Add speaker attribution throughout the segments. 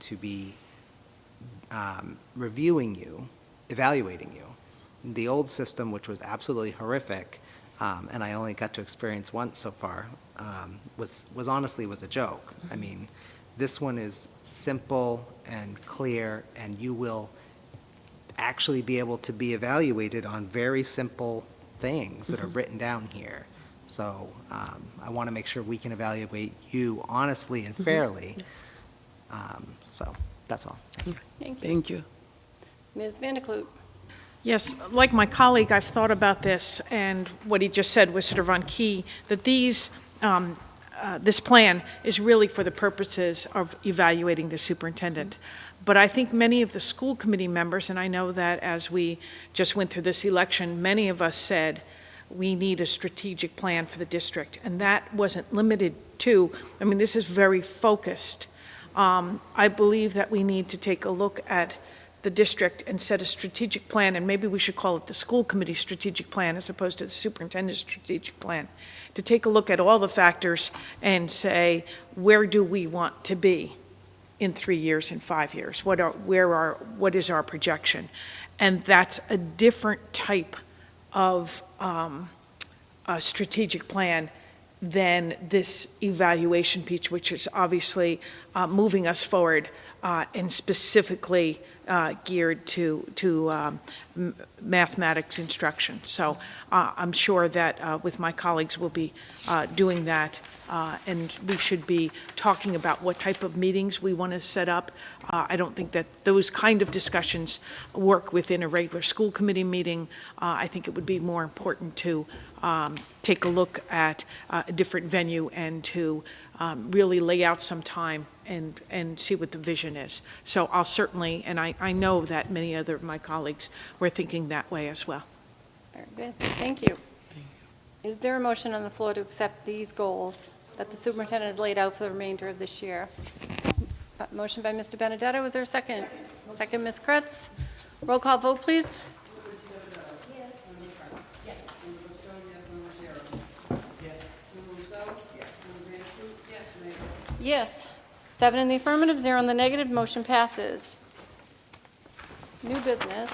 Speaker 1: to be um, reviewing you, evaluating you. The old system, which was absolutely horrific, um, and I only got to experience once so far, um, was, was honestly was a joke. I mean, this one is simple and clear, and you will actually be able to be evaluated on very simple things that are written down here. So um, I want to make sure we can evaluate you honestly and fairly. Um, So that's all.
Speaker 2: Thank you.
Speaker 3: Thank you.
Speaker 2: Ms. Vandekloot?
Speaker 4: Yes, like my colleague, I've thought about this, and what he just said was sort of on key, that these, um, uh, this plan is really for the purposes of evaluating the superintendent. But I think many of the school committee members, and I know that as we just went through this election, many of us said, we need a strategic plan for the district. And that wasn't limited to, I mean, this is very focused. Um, I believe that we need to take a look at the district and set a strategic plan, and maybe we should call it the school committee strategic plan as opposed to the superintendent's strategic plan, to take a look at all the factors and say, where do we want to be in three years and five years? What are, where are, what is our projection? And that's a different type of um, a strategic plan than this evaluation piece, which is obviously uh, moving us forward uh, and specifically uh, geared to, to um, m- mathematics instruction. So uh, I'm sure that uh, with my colleagues, we'll be uh, doing that, uh, and we should be talking about what type of meetings we want to set up. Uh, I don't think that those kind of discussions work within a regular school committee meeting. Uh, I think it would be more important to um, take a look at uh, a different venue and to um, really lay out some time and, and see what the vision is. So I'll certainly, and I, I know that many other of my colleagues were thinking that way as well.
Speaker 2: Very good, thank you. Is there a motion on the floor to accept these goals that the superintendent has laid out for the remainder of this year? Uh, Motion by Mr. Benedetto, is there a second? Second, Ms. Kretz? Roll call vote, please. Yes. Seven in the affirmative, zero in the negative, motion passes. New business.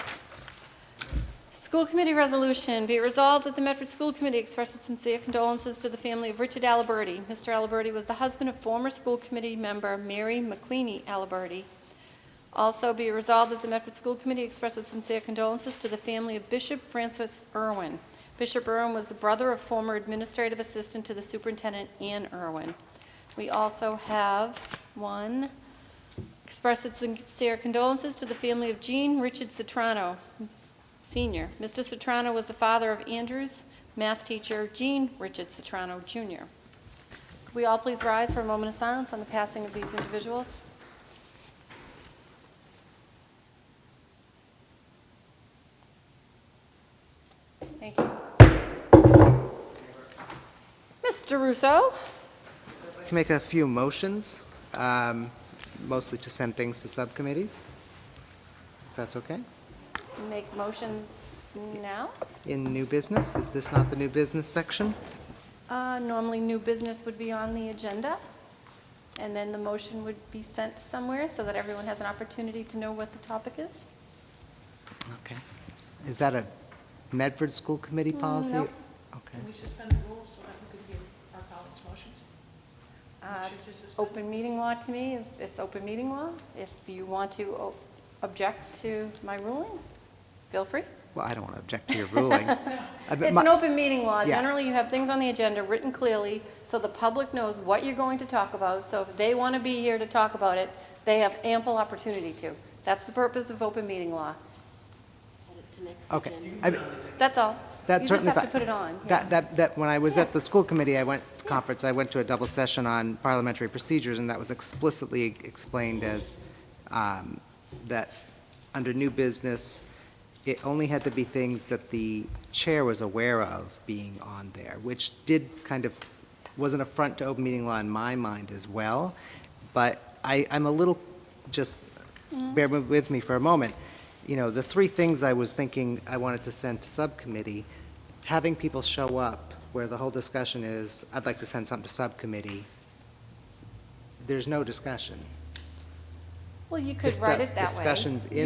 Speaker 2: School Committee Resolution, be it resolved that the Medford School Committee expresses sincere condolences to the family of Richard Aliberti. Mr. Aliberti was the husband of former school committee member Mary McLeany Aliberti. Also, be it resolved that the Medford School Committee expresses sincere condolences to the family of Bishop Francis Irwin. Bishop Irwin was the brother of former administrative assistant to the superintendent Ann Irwin. We also have one, express its sincere condolences to the family of Jean Richard Citrano, Senior. Mr. Citrano was the father of Andrew's math teacher, Jean Richard Citrano, Jr. Could we all please rise for a moment of silence on the passing of these individuals? Thank you. Mr. Russo?
Speaker 1: To make a few motions, um, mostly to send things to subcommittees, if that's okay.
Speaker 2: Make motions now?
Speaker 1: In new business, is this not the new business section?
Speaker 2: Uh, Normally, new business would be on the agenda, and then the motion would be sent somewhere so that everyone has an opportunity to know what the topic is.
Speaker 1: Okay. Is that a Medford School
Speaker 2: Mm,
Speaker 1: Committee policy?
Speaker 2: no.
Speaker 1: Okay.
Speaker 4: suspend the rules so that we could hear our colleagues' motions?
Speaker 2: Uh,
Speaker 4: Should just suspend?
Speaker 2: Open meeting law to me, is it's open meeting law. If you want to o- object to my ruling, feel free.
Speaker 1: Well, I don't want to object to your ruling. I- but
Speaker 2: It's
Speaker 1: my-
Speaker 2: an open meeting law.
Speaker 1: Yeah.
Speaker 2: Generally, you have things on the agenda written clearly, so the public knows what you're going to talk about. So if they want to be here to talk about it, they have ample opportunity to. That's the purpose of open meeting law.
Speaker 1: Okay. I-
Speaker 2: That's all.
Speaker 1: That's certainly.
Speaker 2: You just
Speaker 1: fi-
Speaker 2: have to put it on. yeah.
Speaker 1: That, that, that, when I was at the school committee, I went, conference, I went to a double session on parliamentary procedures, and that was explicitly e-, explained as, um, that under new business, it only had to be things that the chair was aware of being on there, which did kind of, was an affront to open meeting law in my mind as well. But I, I'm a little, just
Speaker 2: Mm.
Speaker 1: bear with me for a moment. You know, the three things I was thinking I wanted to send to subcommittee, having people show up where the whole discussion is, I'd like to send something to subcommittee, there's no discussion.
Speaker 2: Well, you could write
Speaker 1: discuss-
Speaker 2: it that way.
Speaker 1: Discussions in